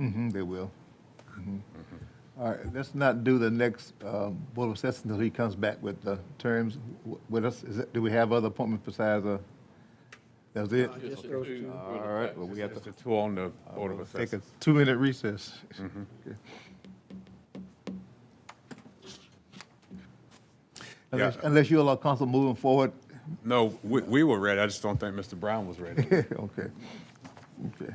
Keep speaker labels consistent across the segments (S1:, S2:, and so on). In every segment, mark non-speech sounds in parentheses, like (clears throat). S1: Mm-hmm, they will. Mhm. All right, let's not do the next um, Board of Assessors until he comes back with the terms w- with us. Is it, do we have other appointments besides, uh, that's it?
S2: Just those two.
S1: All right, well, we have to
S3: Just the two on the Board of
S1: take a Mm-hmm.
S3: Assessors.
S1: two-minute recess. (laughs) Okay. Unless,
S3: Yeah.
S1: unless you allow council moving forward, (laughs)
S3: No, we, we were ready. I just don't think Mr. Brown was
S1: (laughs)
S3: ready.
S1: okay, okay.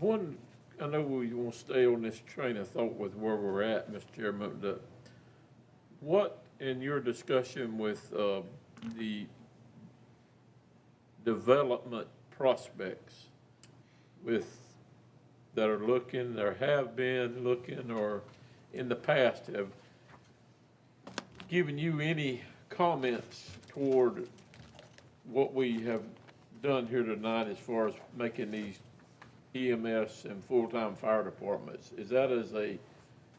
S2: One, I know we want to stay on this train of thought with where we're at, Mr. Chairman, but what, in your discussion with uh, the development prospects with, that are looking, or have been looking, or in the past have given you any comments toward what we have done here tonight as far as making these EMS and full-time fire departments, is that as a,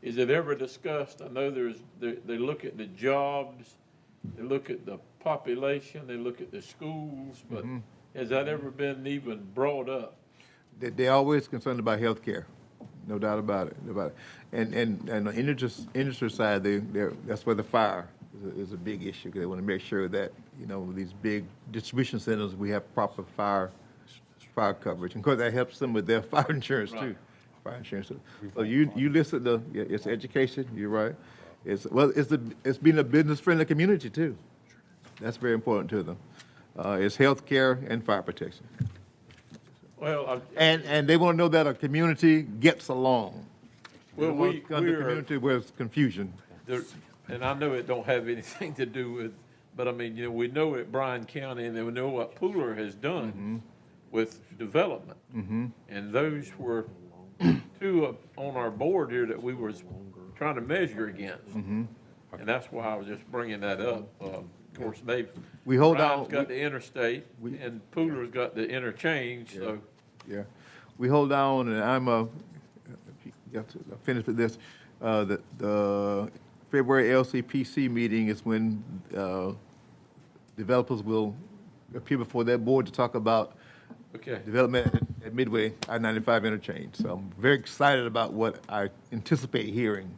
S2: is it ever discussed? I know there's, they, they look at the jobs, they look at the population, they look at the schools, but has that ever been even brought up?
S1: They, they're always concerned about healthcare, no doubt about it, about it. And, and, and on the industry, industry side, they, they're, that's where the fire is a, is a big issue, 'cause they want to make sure that, you know, with these big distribution centers, we have proper fire, fire coverage. And of course, that helps them with their (laughs) fire insurance too.
S2: Right.
S1: Fire insurance. So you, you listed the, yeah, it's education, you're right. It's, well, it's the, it's being a business-friendly community too. That's very important to them. Uh, it's healthcare and fire protection.
S2: Well, I,
S1: And, and they want to know that a community gets along. They
S2: well,
S1: don't want
S2: we,
S1: to come to a
S2: we're,
S1: community where it's confusion.
S2: there- and I know it don't have (laughs) anything to do with, but I mean, you know, we know at Bryan County, and then we know what Pooler has
S1: Mm-hmm.
S2: done with development. And those were (clears throat) two of- on our board here that we was trying to measure against.
S1: Mm-hmm.
S2: And that's why I was just bringing that up. Uh, Of course, they've.
S1: We hold
S2: Bryan's
S1: out-
S2: got the interstate,
S1: we-
S2: and Pooler's got the interchange, so.
S1: Yeah. We hold on, and I'm, uh, got to finish with this. Uh, the, the February LCPC meeting is when, uh, developers will appear before that board to talk about
S2: Okay,
S1: development at Midway, I-95 interchange. So I'm very excited about what I anticipate hearing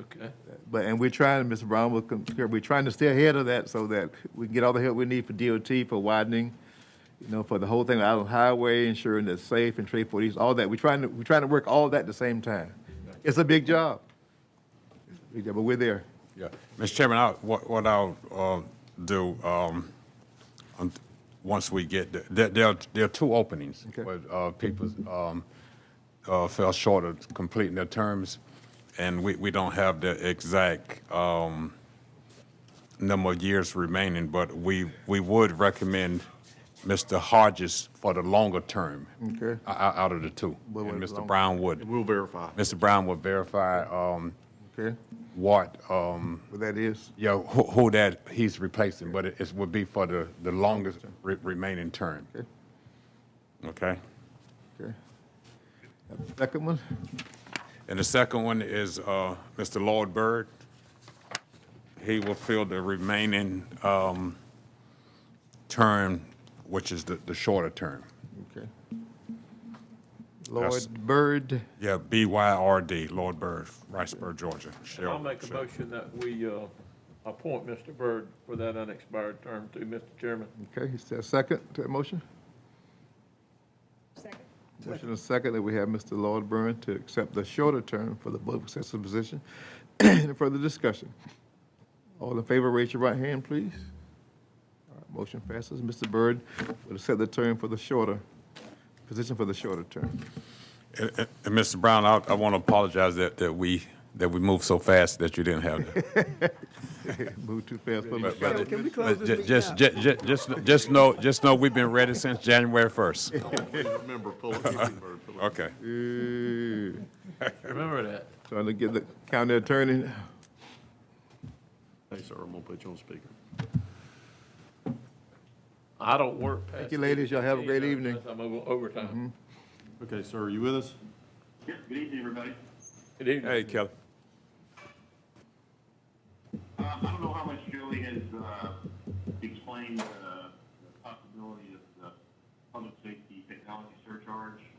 S2: okay.
S1: But, and we're trying, Mr. Brown, will concur, we're trying to stay ahead of that so that we can get all the help we need for DOT, for widening, you know, for the whole thing, out on highway, ensuring that it's safe and trade for these, all that. We're trying to, we're trying to work all that at the same time. It's a big job. It's a big job, But we're there.
S3: Yeah, Mr. Chairman, I, what, what I'll, uh, do, um, um, once we get, the- there, there are, there are two openings.
S1: Okay.
S3: Where, uh, people, um, uh, fell short of completing their terms, and we, we don't have the exact, um, number of years remaining, but we, we would recommend Mr. Hodges for the longer term.
S1: Okay.
S3: o- o- Out of the two,
S1: What
S3: and
S1: was
S3: Mr.
S1: long?
S3: Brown would,
S4: We'll verify.
S3: Mr. Brown would verify, um,
S1: Okay?
S3: what, um,
S1: What that is.
S3: yeah, who, who that he's replacing, but it, it would be for the, the longest re- remaining term.
S1: Okay.
S3: Okay?
S1: Okay. Second one?
S3: And the second one is, uh, Mr. Lloyd Byrd. He will fill the remaining, um, term, which is the, the shorter term.
S1: Okay.
S3: That's-
S1: Lloyd Byrd,
S3: Yeah, B-Y-R-D, Lloyd Byrd, Riceburg, Georgia.
S2: I'll make a motion that we, uh, appoint Mr. Byrd for that unexpired term too, Mr. Chairman.
S1: okay, is there a second to that motion?
S5: Second.
S1: Motion and second that we have Mr. Lloyd Byrne to accept the shorter term for the Board of Assessors position. (clears throat) Any further discussion? All in favor, raise your right hand, please. All right, Motion passes. Mr. Byrd will accept the term for the shorter, position for the shorter term.
S3: And, and- and Mr. Brown, I, I want to apologize that, that we, that we moved so fast that you didn't
S4: (laughs)
S3: have that.
S1: Move too fast for
S3: But-
S1: the,
S3: but-
S4: Can we close
S3: But
S4: this
S3: ju-
S4: meeting
S3: Just,
S4: out?
S3: ju- ju- just, just know, just know we've been ready since January 1st.
S4: Please (laughs) remember, pull it, Bird, pull
S3: (laughs)
S4: it.
S3: Okay.
S1: Ooh,
S2: Remember that.
S1: trying to get the county attorney.
S4: Hey, sir, I'm gonna put you on speaker.
S2: I don't work past.
S1: Thank you, ladies. Y'all have a great
S2: 8:15
S1: evening. Mm-hmm.
S2: unless I'm over overtime.
S4: Okay, sir, are you with us?
S6: Yep, good evening, everybody.
S2: Good evening.
S3: Hey, Kelly.
S6: Uh, I don't know how much Joey has, uh, explained, uh, the possibility of the public safety technology surcharge